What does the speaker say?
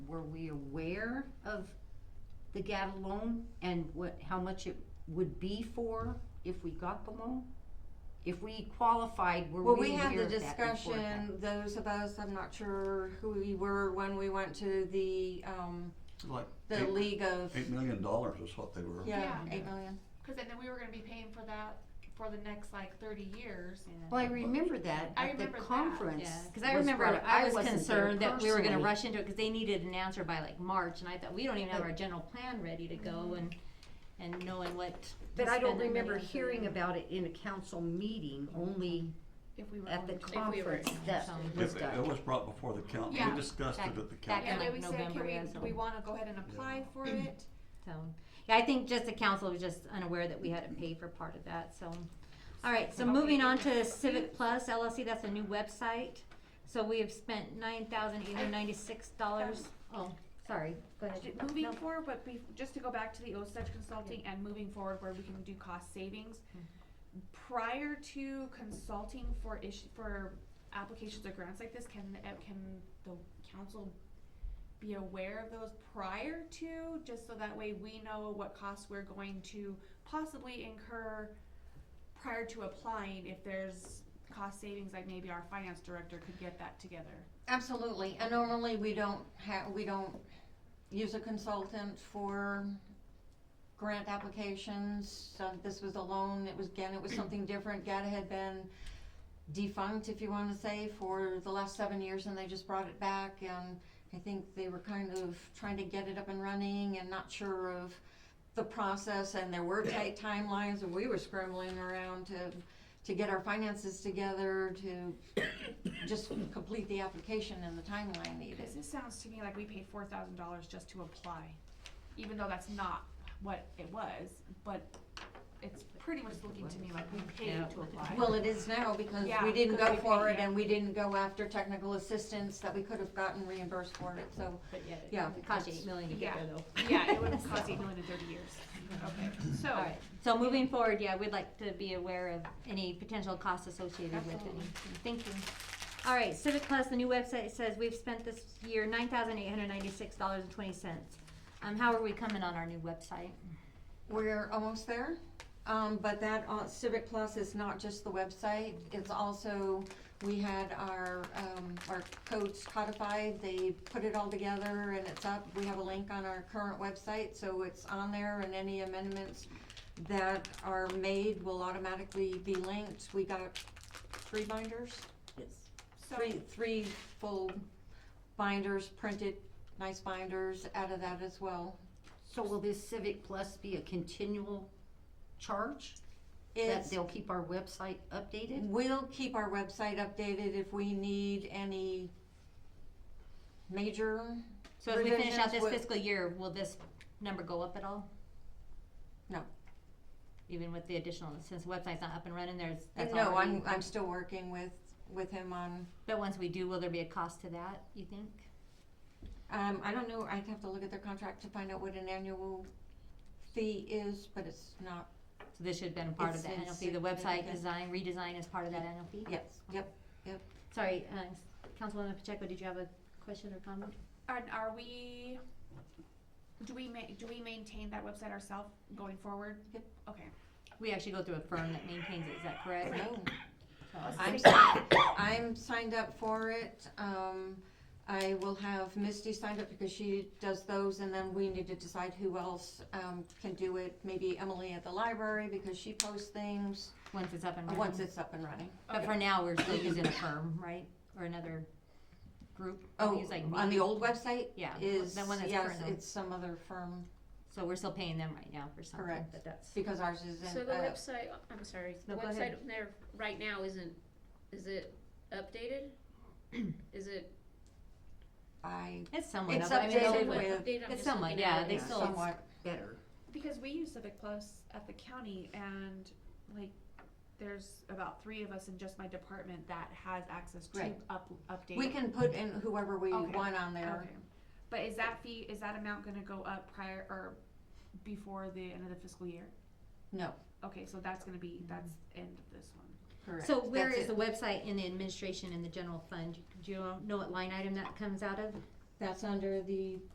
were we aware of the GATA loan and what, how much it would be for if we got the loan? If we qualified, were Well, we we had aware the of that before that? discussion, those of us, I'm not sure who we were when we went to the, um, Like the eight- League of, Eight million dollars is what they were. yeah, Yeah. eight million. Cause then we were gonna be paying for that for the next like thirty years. Well, I remember that I at the remember that, conference. Yeah, because I was brought remember up. I was wasn't there concerned that we were gonna personally. rush into it, because they needed an answer by like March, and I thought, we don't even have But- our general plan ready to go and, and knowing what. to But I don't spend that money remember on. hearing about it in a council meeting, only If we were Mm-hmm. at the going to. we were conference that council. It- was It done. was brought before the council, Yeah. we discussed it Back- at the back council. Yeah, in then like we said, November can we, or do we something. wanna go ahead and apply for it? So, yeah, I think just the council was just unaware that we had Mm-hmm. to pay for part of that, so. All right, so moving on to Civic Plus LLC, that's a new website. So we have spent nine thousand eight hundred ninety-six dollars. Oh, sorry, go ahead. Ju- Moving No. forward, but be, just to go back to the OSED consulting and moving forward where we can do cost savings. Mm-hmm. Prior to consulting for issue, for applications or grants like this, can, the- uh, can the council be aware of those prior to, just so that way we know what costs we're going to possibly incur prior to applying, if there's cost savings, like maybe our finance director could get that together. Absolutely, and normally we don't have, we don't use a consultant for grant applications. So this was a loan, it was, again, it was something different, GATA had been defunct, if you wanna say, for the last seven years, and they just brought it back, and I think they were kind of trying to get it up and running and not sure of the process, and there were tight timelines, and we were scrambling around to, to get our finances together, to just complete the application and the timeline needed. Because this sounds to me like we paid four thousand dollars just to apply, even though that's not what it was, but it's pretty much looking to me like we paid to apply. Well, it is now because Yeah, we didn't 'cause go we for paid, it yeah. and we didn't go after technical assistance that we could have gotten reimbursed for it, so, But yet yeah. it cost you eight million to get there though. Yeah, it would have cost eight million in thirty years. Okay, so, Alright, so moving forward, yeah, we'd like to be aware of any potential costs associated with Absolutely. any, thank you. Alright, Civic Plus, the new website says we've spent this year nine thousand eight hundred ninety-six dollars and twenty cents. Um, how are we coming on our new website? We're almost there, um, but that uh, Civic Plus is not just the website, it's also, we had our, um, our codes codified, they put it all together and it's up. We have a link on our current website, so it's on there and any amendments that are made will automatically be linked. We got three binders, so, three, three full binders, printed, nice binders out of that as well. So will this Civic Plus be a continual charge? That It's- they'll keep our website updated? We'll keep our website updated if we need any major, So as we finish out Revisions this would- fiscal year, will this number go up at all? No. Even with the additional, since the website's not up and running, there's, that's no, already. I'm, I'm still working with, with him on, But once we do, will there be a cost to that, you think? um, I don't know, I'd have to look at their contract to find out what an annual fee is, but it's not, So this should have been part of It's the annual fee, the website insignificant. design, redesign is part of that annual fee? yes, yep. Sorry, uh, Councilwoman Pacheco, did you have a question or comment? are, are we, do we ma- do we maintain that website ourselves going forward? Yep. Okay, We actually go through a firm that maintains it, is that correct? No. So- I'm, si- I'm signed up for it, um, I will have Misty signed up because she does those, and then we need to decide who else, um, can do it. Maybe Emily at the library, because she posts things, Once it's up and once running, it's up and running. but for now, we're still using a firm, right, or another group? We Oh, use, like, on the Meet. old website? Yeah, Is, the one that's yes, current. it's some other firm, So we're still paying them right now for something, Correct. but that's, because ours is So in, the uh, website, I'm sorry, the No, go ahead. website there right now isn't, is it updated? Is it? I, it's somewhat, it's up- I mean, it's- updated somewhat with, updated? I'm it's just somewhat, looking at yeah, it they now. still- somewhat, Better. because we use Civic Plus at the county and like, there's about three of us in just my department that has access to Right. up, update. we can put in whoever we Okay. want on there. Okay, But is that fee, is that amount gonna go up prior or before the end of the fiscal year? No, Okay, so that's gonna be, that's end of this one. correct. so where That's is it. the website in the administration and the general fund? Do you know what line item that comes out of? That's under the